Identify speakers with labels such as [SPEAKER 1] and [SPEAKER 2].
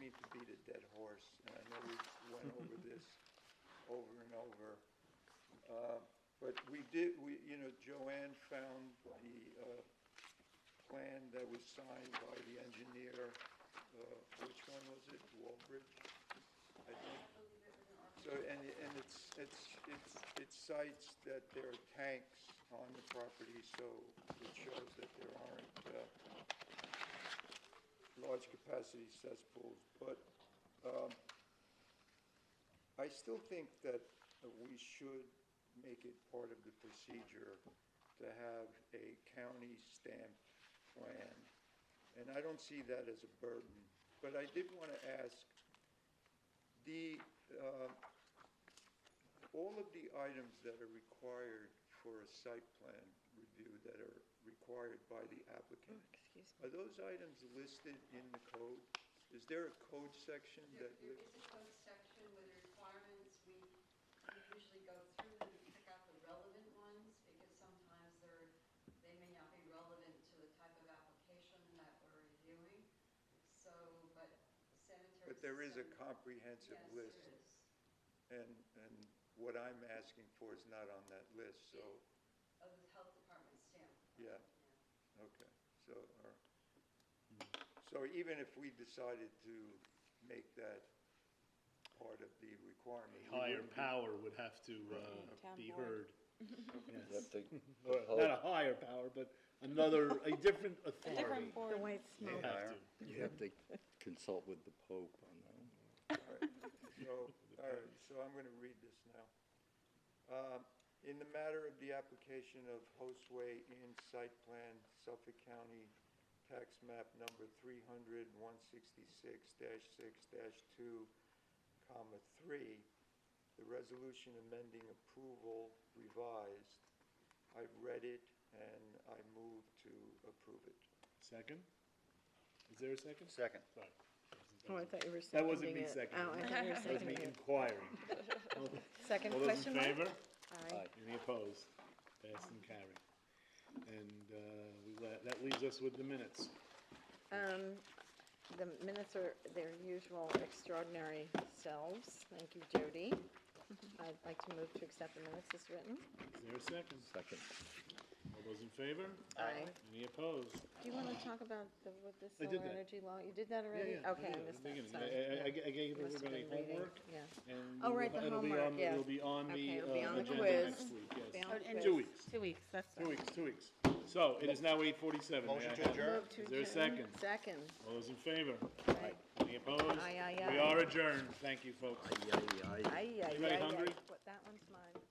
[SPEAKER 1] need to beat a dead horse, and I know we went over this over and over. Uh, But we did, we, you know, Joanne found the uh, plan that was signed by the engineer, uh, which one was it, Walbridge? I think. So, and, and it's, it's, it's, it cites that there are tanks on the property, so it shows that there aren't, uh, large capacity cesspools, but, um, I still think that we should make it part of the procedure to have a county stamped plan. And I don't see that as a burden, but I did want to ask, the, uh, all of the items that are required for a site plan review that are required by the applicant,
[SPEAKER 2] Excuse
[SPEAKER 1] are those items listed in the code? Is there a code section
[SPEAKER 3] There
[SPEAKER 1] that,
[SPEAKER 3] there is a code section with requirements, we we usually go through them and pick out the relevant ones, because sometimes they're, they may not be relevant to the type of application that we're reviewing, so, but sanitary.
[SPEAKER 1] but there is a
[SPEAKER 3] system-
[SPEAKER 1] comprehensive
[SPEAKER 3] Yes, there
[SPEAKER 1] list?
[SPEAKER 3] is.
[SPEAKER 1] And, and what I'm asking for is not on that list, so,
[SPEAKER 3] Of the health department stamp.
[SPEAKER 1] yeah, okay, so, or, so even if we decided to make that part of the requirement. we
[SPEAKER 4] higher
[SPEAKER 1] wouldn't be-
[SPEAKER 4] power would have to
[SPEAKER 2] Right.
[SPEAKER 4] uh,
[SPEAKER 2] Town
[SPEAKER 4] be
[SPEAKER 2] board.
[SPEAKER 4] heard.
[SPEAKER 5] You have
[SPEAKER 4] Yes.
[SPEAKER 5] to
[SPEAKER 4] Not a
[SPEAKER 5] compel,
[SPEAKER 4] higher power, but another, a different
[SPEAKER 2] me.
[SPEAKER 4] authority.
[SPEAKER 2] board. The white
[SPEAKER 4] They
[SPEAKER 2] smoke.
[SPEAKER 4] have to.
[SPEAKER 5] you have to consult with the Pope on that. one.
[SPEAKER 1] All right. So, all right, so I'm going to read this now. Um, In the matter of the application of Hostway Inn Site Plan, Suffolk County Tax Map Number 300-166-6-2, comma, 3, the resolution amending approval revised, I've read it and I move to approve it.
[SPEAKER 4] Second? Is there a second?
[SPEAKER 6] Second.
[SPEAKER 4] Sorry.
[SPEAKER 2] Oh, I thought you were
[SPEAKER 4] That
[SPEAKER 2] seconding
[SPEAKER 4] wasn't me
[SPEAKER 2] it.
[SPEAKER 4] seconding.
[SPEAKER 2] Oh, I thought you were
[SPEAKER 4] That was me
[SPEAKER 2] seconding it.
[SPEAKER 4] inquiring.
[SPEAKER 2] Second
[SPEAKER 4] All those in
[SPEAKER 2] question mark?
[SPEAKER 4] favor?
[SPEAKER 2] Aye.
[SPEAKER 4] Any opposed? Passed and carried. And uh, we let- that leaves us with the minutes.
[SPEAKER 2] Um, the minutes are their usual extraordinary selves. Thank you, Jody. I'd like to move to accept the minutes as written.
[SPEAKER 4] Is there a second?
[SPEAKER 5] Second,
[SPEAKER 4] All those in favor?
[SPEAKER 2] Aye.
[SPEAKER 4] Any opposed?
[SPEAKER 2] Do you want to talk about the, with the
[SPEAKER 4] I did
[SPEAKER 2] solar
[SPEAKER 4] that.
[SPEAKER 2] energy law? You did that
[SPEAKER 4] Yeah,
[SPEAKER 2] already?
[SPEAKER 4] yeah, I
[SPEAKER 2] Okay, I
[SPEAKER 4] did at the
[SPEAKER 2] missed that,
[SPEAKER 4] beginning.
[SPEAKER 2] sorry.
[SPEAKER 4] I- I- I I gave
[SPEAKER 2] Must have
[SPEAKER 4] everybody
[SPEAKER 2] been reading,
[SPEAKER 4] homework.
[SPEAKER 2] yeah.
[SPEAKER 4] And
[SPEAKER 2] Oh,
[SPEAKER 4] we
[SPEAKER 2] right,
[SPEAKER 4] will-
[SPEAKER 2] the
[SPEAKER 4] it'll be on-
[SPEAKER 2] homework, yeah.
[SPEAKER 4] It'll be on
[SPEAKER 2] Okay,
[SPEAKER 4] the
[SPEAKER 2] it'll be
[SPEAKER 4] uh,
[SPEAKER 2] on the
[SPEAKER 4] agenda
[SPEAKER 2] quiz.
[SPEAKER 4] next
[SPEAKER 2] Be
[SPEAKER 4] week,
[SPEAKER 2] on
[SPEAKER 4] yes.
[SPEAKER 2] the quiz.
[SPEAKER 4] Two weeks,
[SPEAKER 7] Two weeks, that's
[SPEAKER 4] two
[SPEAKER 7] fine.
[SPEAKER 4] weeks, two weeks. So it is now eight forty-seven.
[SPEAKER 6] Motion to adjourn?
[SPEAKER 2] Move to
[SPEAKER 4] Is there a
[SPEAKER 2] adjourn.
[SPEAKER 4] second?
[SPEAKER 2] Second.
[SPEAKER 4] All those in favor?
[SPEAKER 2] Aye.
[SPEAKER 4] Any opposed?
[SPEAKER 2] Aye, aye, aye.
[SPEAKER 4] We are adjourned. Thank you, folks.
[SPEAKER 5] Aye, aye, aye.
[SPEAKER 2] Aye, aye,
[SPEAKER 4] Anybody
[SPEAKER 2] aye, aye.
[SPEAKER 4] hungry?
[SPEAKER 2] What- That one's mine.